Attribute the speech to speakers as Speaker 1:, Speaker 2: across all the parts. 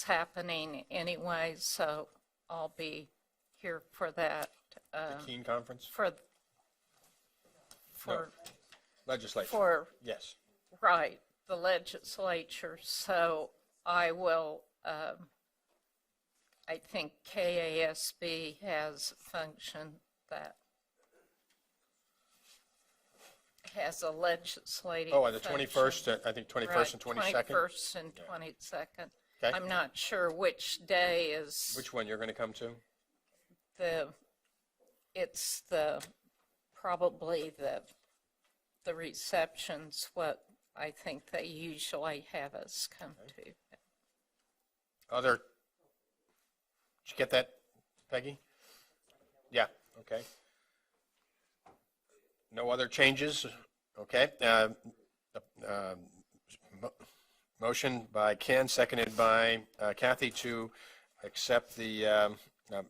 Speaker 1: it's happening anyway, so I'll be here for that, uh,
Speaker 2: Keene Conference?
Speaker 1: for, for,
Speaker 2: Legislature?
Speaker 1: for,
Speaker 2: Yes.
Speaker 1: right, the legislature. So I will, um, I think KASB has a function that has a legislative
Speaker 2: Oh, and the
Speaker 1: function.
Speaker 2: 21st, uh, I think 21st and
Speaker 1: Right,
Speaker 2: 22nd?
Speaker 1: 21st and 22nd.
Speaker 2: Okay.
Speaker 1: I'm not sure which day is
Speaker 2: Which one you're going to come to?
Speaker 1: the, it's the, probably the, the reception's what I think they usually have us come to.
Speaker 2: Other, did you get that, Peggy? Yeah, okay. No other changes? Okay. uh, um, mo- Motion by Ken, seconded by uh, Kathy to accept the um, um,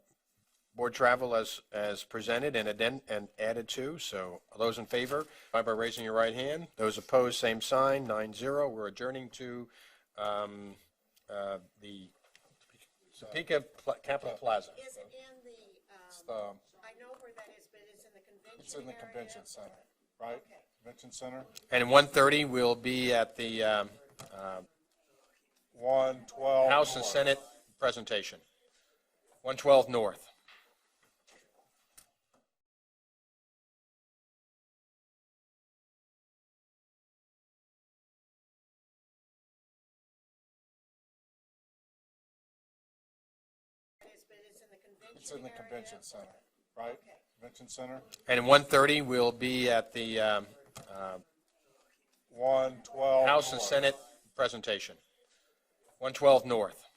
Speaker 2: board travel as, as presented and aden, and added to. So all those in favor, by by raising your right hand. Those opposed, same sign, nine zero. We're adjourning to um, uh, the Topeka Pla- Capitol Plaza.
Speaker 3: Is it in the, um,
Speaker 4: um,
Speaker 3: I know where that is, but it's in the convention
Speaker 4: It's in the
Speaker 3: area?
Speaker 4: convention center, right? Convention center,
Speaker 2: And 1:30, we'll be at the um,
Speaker 4: one, twelve.
Speaker 2: House and Senate presentation, 112 North.
Speaker 3: It is, but it's in the convention
Speaker 4: It's in the
Speaker 3: area?
Speaker 4: convention center, right? Convention center,
Speaker 2: And 1:30, we'll be at the um,
Speaker 4: one, twelve.
Speaker 2: House and
Speaker 4: North.
Speaker 2: Senate presentation, 112 North.